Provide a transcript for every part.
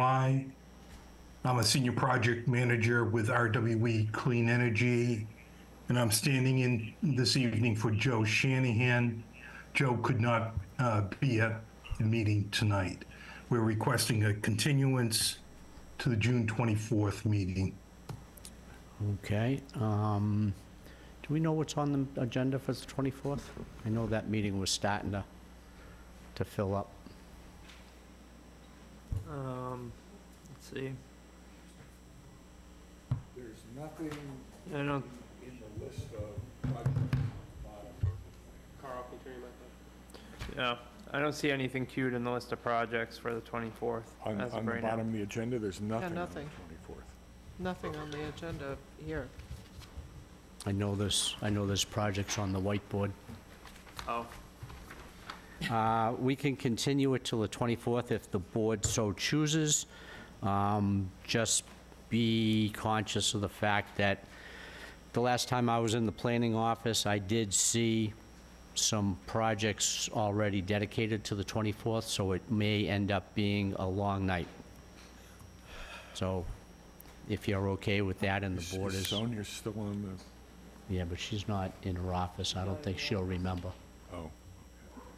Why? I'm a senior project manager with RWE Clean Energy, and I'm standing in this evening for Joe Shanahan. Joe could not uh, be at the meeting tonight. We're requesting a continuance to the June 24th meeting. Okay, um, do we know what's on the agenda for the 24th? I know that meeting was starting to, to fill up. Um, let's see. There's nothing I don't, in the list of projects. Carl can turn your mic on. yeah, I don't see anything queued in the list of projects for the 24th On, as on of the right now. bottom of the agenda, there's nothing on the nothing. 24th. Nothing on the agenda here. I know there's, I know there's projects on the whiteboard. Oh, Uh, We can continue it till the 24th if the board so chooses. Um, Just be conscious of the fact that the last time I was in the planning office, I did see some projects already dedicated to the 24th, so it may end up being a long night. So if you're okay with that and the board is, Sonia's still on the, yeah, but she's not in her office, I don't think she'll remember. oh,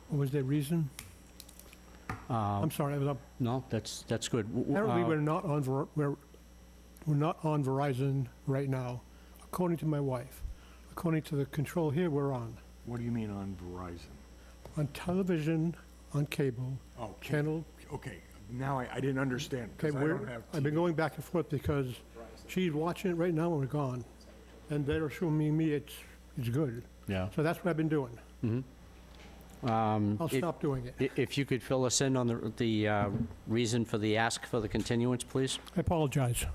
What was the reason? I'm sorry, I was up. No, that's, that's good. Um, W- w- Apparently, uh, we're not on, Ver- we're, we're not on Verizon right now, according to my wife. According to the control here, we're on, what do you mean on Verizon? on television, on cable, Oh, can- channel. okay, now I, I didn't understand, Okay, because I don't we're, have. I've been TV. going back and forth because she's watching it right now and we're gone. And they're assuming me it's, it's good. Yeah. Mm-hmm. Um, So that's what I've been doing. I'll it- stop doing it. I- If you could fill us in on the- the uh, reason for the ask for the continuance, please? I apologize.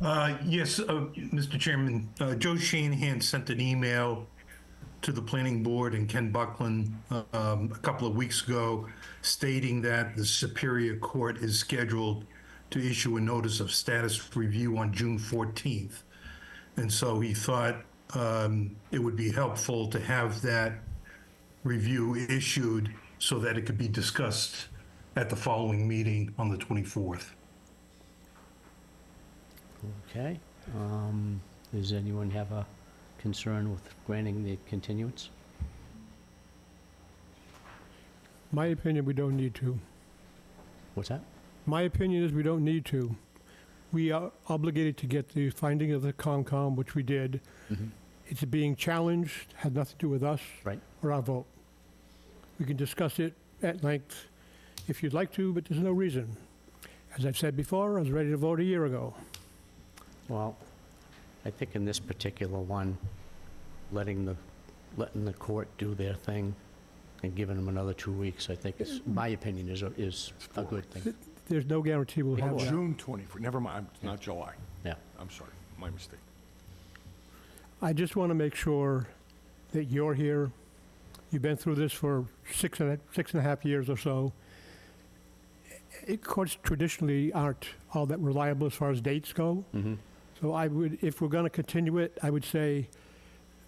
Uh, Yes, uh, Mr. Chairman, uh, Joe Shanahan sent an email to the planning board and Ken Buckland uh, um, a couple of weeks ago stating that the Superior Court is scheduled to issue a notice of status review on June 14th. And so he thought um, it would be helpful to have that review issued so that it could be discussed at the following meeting on the 24th. Okay. um, Does anyone have a concern with granting the continuance? My opinion, we don't need to. What's that? My opinion is we don't need to. We are obligated to get the finding of the Concom, which we did. It's being challenged, had nothing to do with us Right. or our vote. We can discuss it at length if you'd like to, but there's no reason. As I've said before, I was ready to vote a year ago. Well, I think in this particular one, letting the, letting the court do their thing and giving them another two weeks, I think, is, my opinion, is, a- is a good thing. There's no guarantee we'll Oh, have that. June 24th, never mind, I'm- not July. Yeah. I'm sorry, my mistake. I just want to make sure that you're here. You've been through this for six and a, six and a half years or so. It, courts traditionally aren't all that reliable as far as dates go. Mm-hmm. So I would, if we're going to continue it, I would say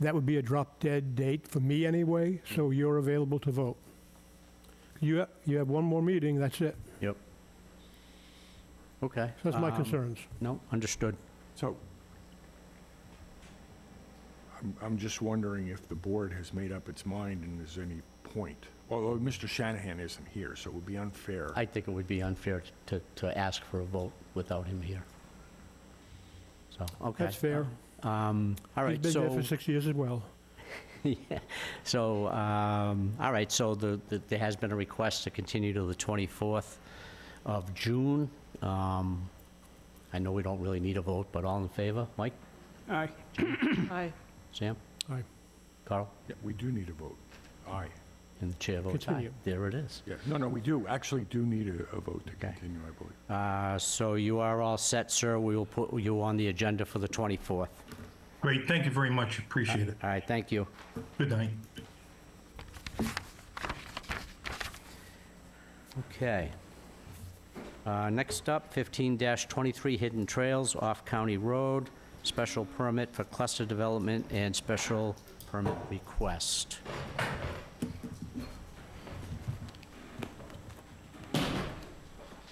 that would be a drop dead date for me anyway. So you're available to vote. You ha- you have one more meeting. That's it. Yep. Okay. So that's my um, concerns. No, understood. So, I'm, I'm just wondering if the board has made up its mind and there's any point. Although Mr. Shanahan isn't here, so it would be unfair. I think it would be unfair to, to ask for a vote without him here. So, okay. That's fair. Um, All right, He's been there so, for six years as well. yeah. so, um, all right, so the, the- there has been a request to continue to the 24th of June. Um, I know we don't really need a vote, but all in favor? Mike? Aye. Aye. Sam? Aye. Carl? Yeah, We do need a vote. Aye. And the chair votes aye. Continue. There it is. Yeah, no, no, we do actually do need a, a vote to Okay. continue, I believe. Uh, So you are all set, sir. We will put you on the agenda for the 24th. Great, thank you very much, appreciate it. All right, thank you. Good night. Okay. Uh, Next up, 15-23 Hidden Trails off County Road, special permit for cluster development and special permit request.